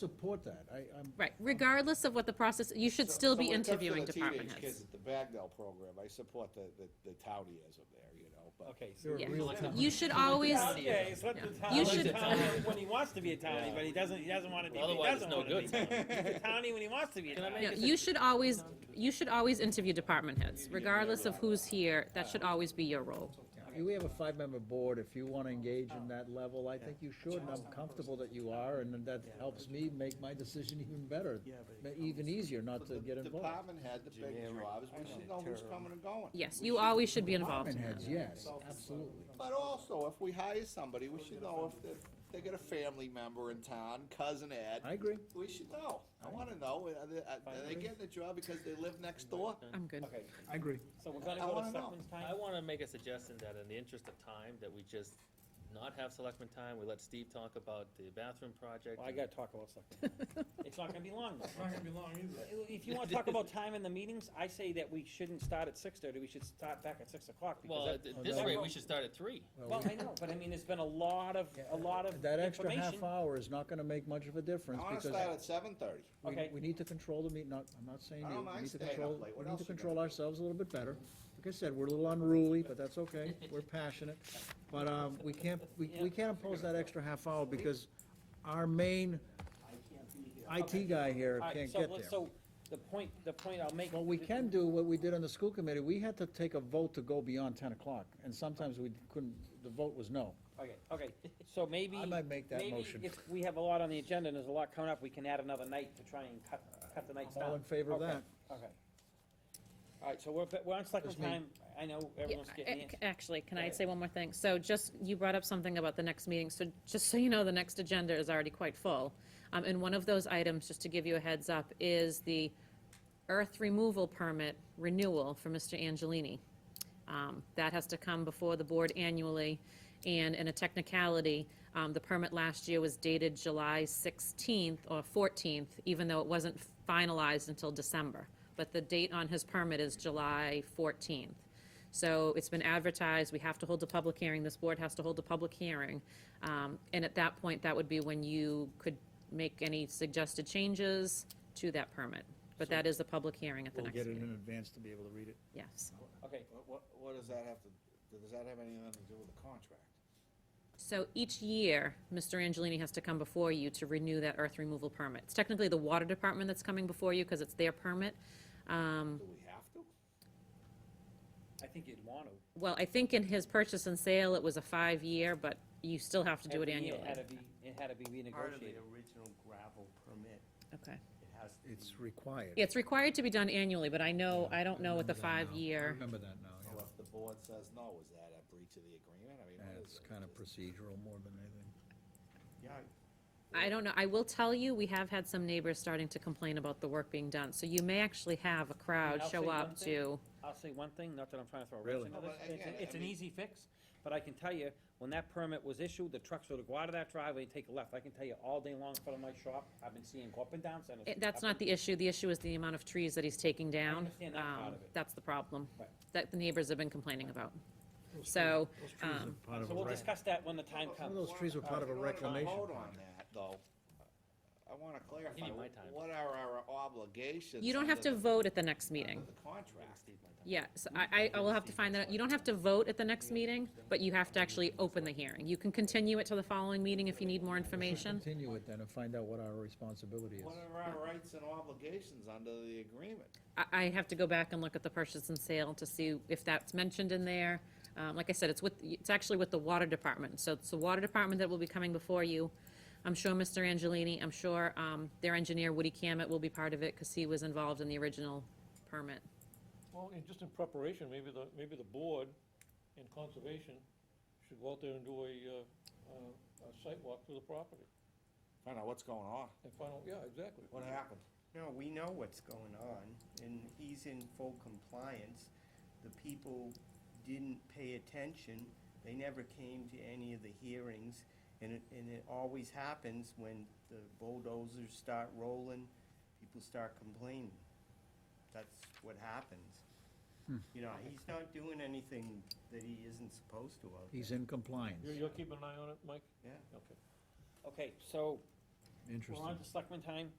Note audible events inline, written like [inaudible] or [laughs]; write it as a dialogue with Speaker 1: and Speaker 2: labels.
Speaker 1: support that. I, I'm.
Speaker 2: Right, regardless of what the process, you should
Speaker 3: So-
Speaker 2: still
Speaker 3: so
Speaker 2: be
Speaker 3: when it comes to
Speaker 2: interviewing
Speaker 3: the
Speaker 2: department
Speaker 3: Teenage kids
Speaker 2: heads.
Speaker 3: at the Bagnell program, I support the, the, the townyism there, you know, but.
Speaker 4: Okay.
Speaker 1: They're
Speaker 2: Yeah.
Speaker 1: real
Speaker 4: let's
Speaker 1: town.
Speaker 4: not-
Speaker 2: You should always,
Speaker 5: Okay, it's let the
Speaker 2: Yeah.
Speaker 5: town,
Speaker 2: You
Speaker 5: let the
Speaker 2: should-
Speaker 5: townie when he wants to be a townie, but he doesn't, he doesn't wanna be, but he
Speaker 4: Otherwise, it's
Speaker 5: doesn't
Speaker 4: no
Speaker 5: wanna be.
Speaker 4: good.
Speaker 5: He's a townie when he wants to be a
Speaker 4: Can I
Speaker 5: townie.
Speaker 2: no, you should always, you should always interview department heads, regardless of who's here, that should always be your role.
Speaker 1: You- We have a five-member board. If you want to engage in that level, I think you should, and I'm comfortable that you are, and that helps me make my decision even better. ma- Even easier not to
Speaker 3: The
Speaker 1: get involved.
Speaker 3: Department had the big jobs, we should know who's coming and going.
Speaker 2: Yes, you always should be involved
Speaker 1: Department
Speaker 2: in
Speaker 1: heads,
Speaker 2: that.
Speaker 1: yes, absolutely.
Speaker 3: But also, if we hire somebody, we should know if they, they got a family member in town, cousin Ed.
Speaker 1: I agree.
Speaker 3: We should know. I wanna know, are they, are they getting the job because they live next door?
Speaker 2: I'm good.
Speaker 4: Okay,
Speaker 1: I agree.
Speaker 5: So we're gonna
Speaker 3: I
Speaker 5: go
Speaker 3: wanna
Speaker 5: to
Speaker 3: know.
Speaker 5: selectmen's
Speaker 4: I
Speaker 5: time?
Speaker 4: wanna make a suggestion that in the interest of time, that we just not have selectmen time, we let Steve talk about the bathroom project.
Speaker 5: Well, I gotta talk about selectmen. [laughs] It's not gonna be long though.
Speaker 6: It's not gonna be long either.
Speaker 5: If you wanna talk about time in the meetings, I say that we shouldn't start at six thirty, we should start back at six o'clock. because
Speaker 4: Well,
Speaker 5: that-
Speaker 4: at th- this rate, we should start at three.
Speaker 5: Well,
Speaker 1: [laughs]
Speaker 5: I know, but I mean, there's been a lot of, a lot of
Speaker 1: That extra half
Speaker 5: information.
Speaker 1: hour is not going to make much of a
Speaker 3: I
Speaker 1: difference
Speaker 3: wanna start
Speaker 1: because
Speaker 3: at seven thirty.
Speaker 1: we,
Speaker 5: Okay.
Speaker 1: we need to control the meet, not, I'm not saying
Speaker 3: I
Speaker 1: you,
Speaker 3: don't
Speaker 1: we
Speaker 3: mind
Speaker 1: need to
Speaker 3: staying up
Speaker 1: control,
Speaker 3: late. What
Speaker 1: we need
Speaker 3: else
Speaker 1: to
Speaker 3: you gonna
Speaker 1: control
Speaker 3: do?
Speaker 1: ourselves a little bit better. Like I said, we're a little unruly, but that's
Speaker 3: [laughs]
Speaker 1: okay. We're passionate. But, um, we can't, we, we can't impose that extra half hour because our main
Speaker 5: Okay.
Speaker 1: IT guy here
Speaker 5: All right,
Speaker 1: can't
Speaker 5: so
Speaker 1: get
Speaker 5: let's-
Speaker 1: there.
Speaker 5: So, the point, the point I'll make.
Speaker 1: Well, we
Speaker 5: th-
Speaker 1: can do what we did on the school committee. We had to take a vote to go beyond ten o'clock, and sometimes we couldn't, the vote was no.
Speaker 5: Okay, okay, so
Speaker 1: [laughs]
Speaker 5: maybe.
Speaker 1: I might make that motion.
Speaker 5: Maybe if we have a lot on the agenda and there's a lot coming up, we can add another night to try and cut, cut the nights down.
Speaker 1: All in favor of
Speaker 5: Okay,
Speaker 1: that?
Speaker 5: Okay. All right, so we're, but we're on second
Speaker 1: Just me.
Speaker 5: time, I know
Speaker 2: Yeah,
Speaker 5: everyone's getting
Speaker 2: ac-
Speaker 5: antsy.
Speaker 2: Actually, can I
Speaker 5: Right.
Speaker 2: say one more thing? So just, you brought up something about the next meeting, so just so you know, the next agenda is already quite full. Um, and one of those items, just to give you a heads up, is the earth removal permit renewal for Mr. Angelini. Um, That has to come before the board annually, and in a technicality, um, the permit last year was dated July 16th or 14th, even though it wasn't finalized until December. But the date on his permit is July 14th. So it's been advertised, we have to hold a public hearing, this board has to hold a public hearing. Um, And at that point, that would be when you could make any suggested changes to that permit. But that is the public hearing at the
Speaker 1: We'll
Speaker 2: next
Speaker 1: get it
Speaker 2: meeting.
Speaker 1: in advance to be able to read it.
Speaker 2: Yes.
Speaker 5: Okay,
Speaker 3: What, what, what does that have to, does that have anything to do with the contract?
Speaker 2: So each year, Mr. Angelini has to come before you to renew that earth removal permit. It's technically the water department that's coming before you because it's their permit. Um,
Speaker 3: Do we have to?
Speaker 5: I think you'd want to.
Speaker 2: Well, I think in his purchase and sale, it was a five-year, but you still have to do it
Speaker 5: Every year
Speaker 2: annually.
Speaker 5: It had to be, it had to be
Speaker 6: Part of the
Speaker 5: renegotiated.
Speaker 6: original gravel permit,
Speaker 2: Okay.
Speaker 6: it has to be,
Speaker 1: It's required.
Speaker 2: It's required to be done annually, but I know, I don't know what
Speaker 1: Remember
Speaker 2: the
Speaker 1: that now. I
Speaker 2: five-year,
Speaker 1: Remember that now,
Speaker 3: So
Speaker 1: yeah.
Speaker 3: if the board says no, is that a breach of the agreement? I mean, what is
Speaker 1: That's
Speaker 3: it?
Speaker 1: kind of
Speaker 3: Just-
Speaker 1: procedural more than anything.
Speaker 6: yeah,
Speaker 2: I don't know. I will tell you, we have had some neighbors starting to complain about the work being done. So you may actually have a crowd
Speaker 5: I'll say
Speaker 2: show
Speaker 5: one
Speaker 2: up
Speaker 5: thing.
Speaker 2: to,
Speaker 5: I'll say one thing, not that I'm trying to throw a
Speaker 1: Really?
Speaker 5: wrench into
Speaker 3: No,
Speaker 5: this,
Speaker 3: but
Speaker 5: it's,
Speaker 3: again,
Speaker 5: it's
Speaker 3: I
Speaker 5: an
Speaker 3: mean-
Speaker 5: easy fix, but I can tell you, when that permit was issued, the trucks would go out of that driveway and take a left. I can tell you all day long in front of my shop, I've been seeing go up and down Center.
Speaker 2: It-
Speaker 5: Street,
Speaker 2: That's
Speaker 5: up and
Speaker 2: not the issue. The issue is the amount of trees that he's taking down.
Speaker 5: understand that part
Speaker 2: Um,
Speaker 5: of it.
Speaker 2: That's the problem
Speaker 5: Right.
Speaker 2: that the neighbors have been complaining about. So, um,
Speaker 5: So we'll discuss that when the time
Speaker 3: Well,
Speaker 1: Some of
Speaker 5: comes.
Speaker 1: those trees were part of a
Speaker 3: In order to
Speaker 1: reclamation
Speaker 3: Vote
Speaker 1: project.
Speaker 3: on that, though, I wanna clarify,
Speaker 4: you my time.
Speaker 3: what are our obligations?
Speaker 2: you don't have
Speaker 3: under
Speaker 2: to
Speaker 3: the-
Speaker 2: vote at the next
Speaker 3: under
Speaker 2: meeting.
Speaker 3: the contract.
Speaker 2: Yeah, so I, I will have to find that. out. You don't have to vote at the next meeting, but you have to actually open the hearing. You can continue it to the following meeting if you need more information.
Speaker 1: Continue it then and find out what our responsibility is.
Speaker 3: What are our rights and obligations under the agreement?
Speaker 2: I, I have to go back and look at the purchase and sale to see if that's mentioned in there. Um, like I said, it's with, it's actually with the water department, so it's the water department that will be coming before you. I'm sure Mr. Angelini, I'm sure, um, their engineer Woody Cammett will be part of it, cause he was involved in the original permit.
Speaker 7: Well, and just in preparation, maybe the, maybe the board and conservation should go out there and do a, uh, uh, a site walk through the property
Speaker 3: Find out what's going on,
Speaker 7: and find out, yeah, exactly.
Speaker 3: what happened.
Speaker 6: no, we know what's going on, and he's in full compliance. The people didn't pay attention, they never came to any of the hearings, and it, and it always happens when the bulldozers start rolling, people start complaining. That's what happens. You know, he's not doing anything that he isn't supposed to out there.
Speaker 1: He's in compliance.
Speaker 7: You're, you're keeping an eye on it, Mike?
Speaker 6: Yeah.
Speaker 7: Okay.
Speaker 5: Okay, so
Speaker 1: Interesting.
Speaker 5: We're on to selectmen time.